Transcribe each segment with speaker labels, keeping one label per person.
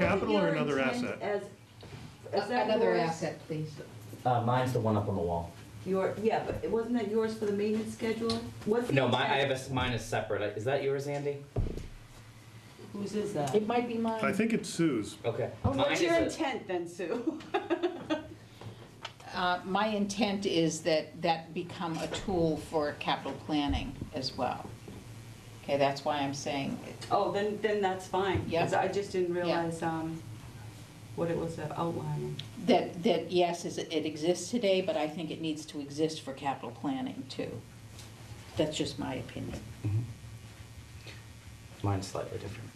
Speaker 1: Capital or
Speaker 2: Your
Speaker 1: another
Speaker 2: intent
Speaker 1: asset?
Speaker 2: As, is that
Speaker 3: Another
Speaker 2: yours?
Speaker 3: asset, please.
Speaker 4: Uh, mine's the one up on the wall.
Speaker 2: Your, yeah, but it- wasn't that yours for the maintenance schedule? What's the
Speaker 4: No, my, I
Speaker 2: intent?
Speaker 4: have a, s- mine is separate. Is that yours, Andy?
Speaker 5: Whose is that?
Speaker 3: It might be
Speaker 1: I
Speaker 3: mine.
Speaker 1: think it's Sue's.
Speaker 4: Okay.
Speaker 5: Oh,
Speaker 4: Mine
Speaker 5: What's
Speaker 4: is
Speaker 5: your
Speaker 4: a-
Speaker 5: intent then, Sue?
Speaker 3: Uh, My intent is that that become a tool for capital planning as well. Okay, that's why I'm saying,
Speaker 5: Oh, then, then that's fine. 'cause
Speaker 3: Yeah.
Speaker 5: I just didn't realize, um, what it was outlining.
Speaker 3: that, that yes, is- it exists today, but I think it needs to exist for capital planning too. That's just my opinion.
Speaker 4: Mine's slightly different.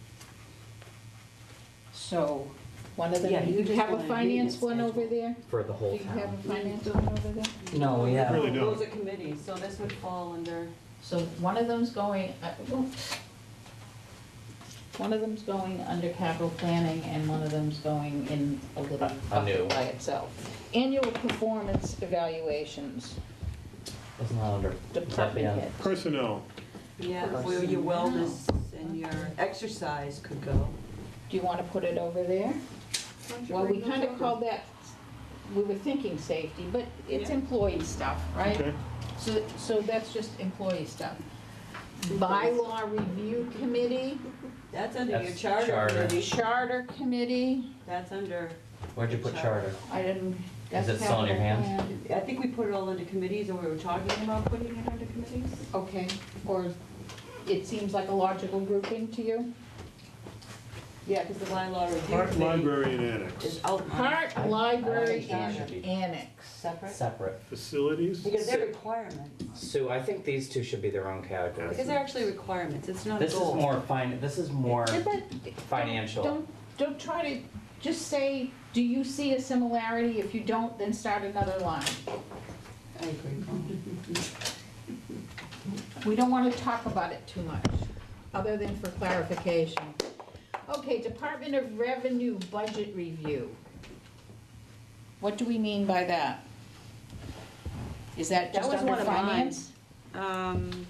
Speaker 3: So, one of
Speaker 5: Yeah,
Speaker 3: them,
Speaker 5: you
Speaker 3: you
Speaker 5: just
Speaker 3: have
Speaker 5: wanna
Speaker 3: a
Speaker 5: read
Speaker 3: finance
Speaker 5: it,
Speaker 3: one
Speaker 5: schedule.
Speaker 3: over there?
Speaker 4: For the
Speaker 3: Do
Speaker 4: whole
Speaker 3: you have a
Speaker 4: town.
Speaker 3: finance one over there?
Speaker 4: No, we
Speaker 1: I
Speaker 4: have,
Speaker 1: really don't.
Speaker 5: Those are committees, so this would fall under,
Speaker 3: So one of them's going, uh, well, one of them's going under capital planning and one of them's going in a little
Speaker 4: new.
Speaker 3: bucket by itself. Annual performance evaluations,
Speaker 4: it's not under. yeah.
Speaker 3: department head.
Speaker 1: Personnel,
Speaker 5: yeah, where your wellness and your exercise could go.
Speaker 3: Do you wanna put it over there? Well, we kinda called that, we were thinking safety, but it's
Speaker 5: Yeah.
Speaker 3: employee stuff, right?
Speaker 1: okay?
Speaker 3: So, so that's just employee stuff. Bylaw review committee,
Speaker 5: That's under your
Speaker 4: That's
Speaker 5: charter
Speaker 4: charter.
Speaker 5: committee.
Speaker 3: charter committee,
Speaker 5: That's under,
Speaker 4: Where'd you put charter?
Speaker 3: I didn't.
Speaker 4: Is it
Speaker 3: that's
Speaker 4: still in your
Speaker 3: capital
Speaker 4: hands?
Speaker 3: plan.
Speaker 5: I think we put it all under committees, or we were talking about putting it under committees.
Speaker 3: Okay, or it seems like a logical grouping to you?
Speaker 5: Yeah, because the bylaw review
Speaker 1: Park,
Speaker 5: committee
Speaker 1: library, and annex.
Speaker 5: is outlined
Speaker 3: Park, library,
Speaker 4: I- I
Speaker 3: and
Speaker 4: think it should be.
Speaker 3: annex.
Speaker 5: separate.
Speaker 4: Separate.
Speaker 1: Facilities?
Speaker 5: Because they're requirements.
Speaker 4: Sue, I think these two should be their own categories.
Speaker 5: Because they're actually requirements, it's not a
Speaker 4: This is
Speaker 5: goal.
Speaker 4: more fin, this is more,
Speaker 3: Yeah, but don't-
Speaker 4: financial.
Speaker 3: Don't, don't try to, just say, do you see a similarity? If you don't, then start another line.
Speaker 5: I agree.
Speaker 3: We don't want to talk about it too much, other than for clarification. Okay, Department of Revenue Budget Review. What do we mean by that? Is that
Speaker 5: That
Speaker 3: just
Speaker 5: was
Speaker 3: under
Speaker 5: one of mine.
Speaker 3: finance
Speaker 5: Um,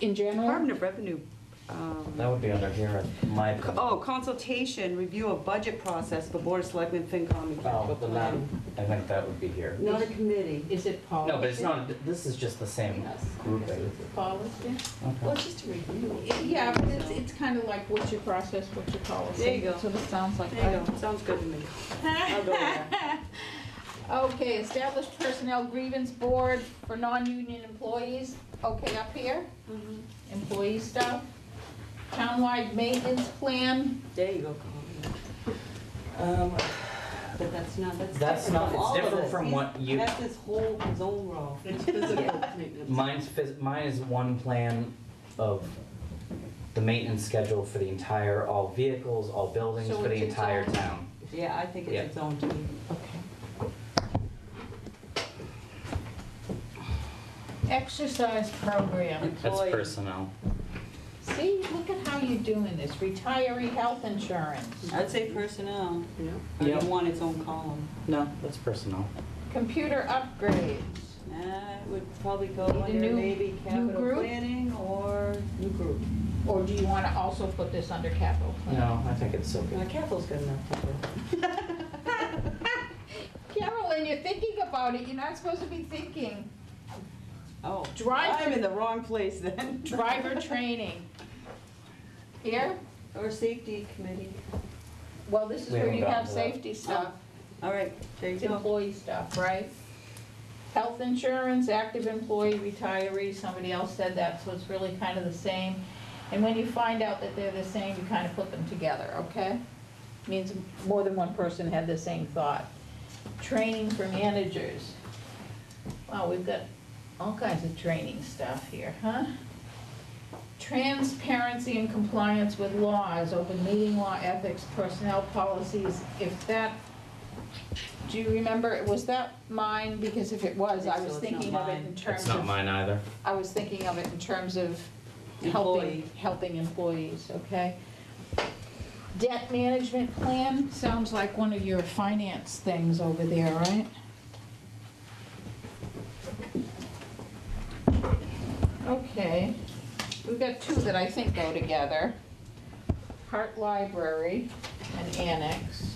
Speaker 3: in general?
Speaker 5: Department of Revenue, um,
Speaker 4: that would be under here, in my. opinion.
Speaker 5: oh, consultation, review of budget process for Board of Selectmen, FinCom, and
Speaker 4: Oh,
Speaker 5: Capital
Speaker 4: but not,
Speaker 5: Plan.
Speaker 4: I think that would be here.
Speaker 2: Not a committee.
Speaker 3: Is it policy?
Speaker 4: No, but it's not, this is just the same grouping.
Speaker 3: Policy?
Speaker 2: Well,
Speaker 4: Okay.
Speaker 2: it's just a review.
Speaker 3: Yeah, but it's, it's kind of like what's your process, what's your policy?
Speaker 5: There you go.
Speaker 3: So it sounds like.
Speaker 5: There you go, sounds good to me. I'll go there.
Speaker 3: Okay, establish personnel grievance board for non-union employees, okay, up here,
Speaker 5: Mhm.
Speaker 3: employee stuff. Townwide maintenance plan,
Speaker 5: There you go, Colleen.
Speaker 4: Um,
Speaker 5: But that's not, that's.
Speaker 4: That's
Speaker 5: different
Speaker 4: not-
Speaker 5: from
Speaker 4: it's
Speaker 5: all of
Speaker 4: different
Speaker 5: us.
Speaker 4: from
Speaker 5: He's-
Speaker 4: what you-
Speaker 5: That's his whole, his own role.
Speaker 6: It's physical maintenance.
Speaker 4: Mine's phys- mine is one plan of the maintenance schedule for the entire, all vehicles, all buildings,
Speaker 3: So
Speaker 4: for the
Speaker 3: it's its
Speaker 4: entire
Speaker 3: own-
Speaker 4: town.
Speaker 5: Yeah, I think
Speaker 4: Yeah.
Speaker 5: it's its own team.
Speaker 3: okay. Exercise program,
Speaker 4: That's
Speaker 5: Employee.
Speaker 4: personnel.
Speaker 3: see, look at how you're doing this, retiree health insurance,
Speaker 5: I'd say personnel,
Speaker 6: Yeah.
Speaker 5: I
Speaker 4: Yeah.
Speaker 5: don't want its own column.
Speaker 4: No, that's personnel.
Speaker 3: computer upgrades.
Speaker 5: Uh, it would probably go
Speaker 3: Need a
Speaker 5: under
Speaker 3: new-
Speaker 5: maybe capital
Speaker 3: group?
Speaker 5: planning or new group.
Speaker 3: Or do you want to also put this under capital plan?
Speaker 4: No, I think it's okay.
Speaker 5: Now, Uh, capital's good enough to do.
Speaker 3: Carolyn, you're thinking about it, you're not supposed to be thinking.
Speaker 5: Oh,
Speaker 3: Drive-
Speaker 5: I'm in the wrong place then.
Speaker 3: Driver training. Here,
Speaker 5: Or safety committee.
Speaker 3: well, this is
Speaker 4: We
Speaker 3: where
Speaker 4: haven't
Speaker 3: you
Speaker 4: gotten
Speaker 3: have
Speaker 4: to that.
Speaker 3: safety stuff,
Speaker 5: All right, there you
Speaker 3: it's
Speaker 5: go.
Speaker 3: employee stuff, right? Health insurance, active employee, retiree, somebody else said that, so it's really kind of the same. And when you find out that they're the same, you kind of put them together, okay? Means more than one person had the same thought. Training for managers. Wow, we've got all kinds of training stuff here, huh? Transparency and compliance with laws, open meeting law, ethics, personnel policies, if that, do you remember, was that mine? Because if it was, I
Speaker 5: So
Speaker 3: was
Speaker 5: it's not
Speaker 3: thinking of it
Speaker 5: mine.
Speaker 3: in terms
Speaker 4: It's
Speaker 3: of.
Speaker 4: not mine either.
Speaker 3: I was thinking of it in terms of
Speaker 5: Employee.
Speaker 3: helping, helping employees, okay? Debt management plan, sounds like one of your finance things over there, right? Okay, we've got two that I think go together. Hart Library, an annex.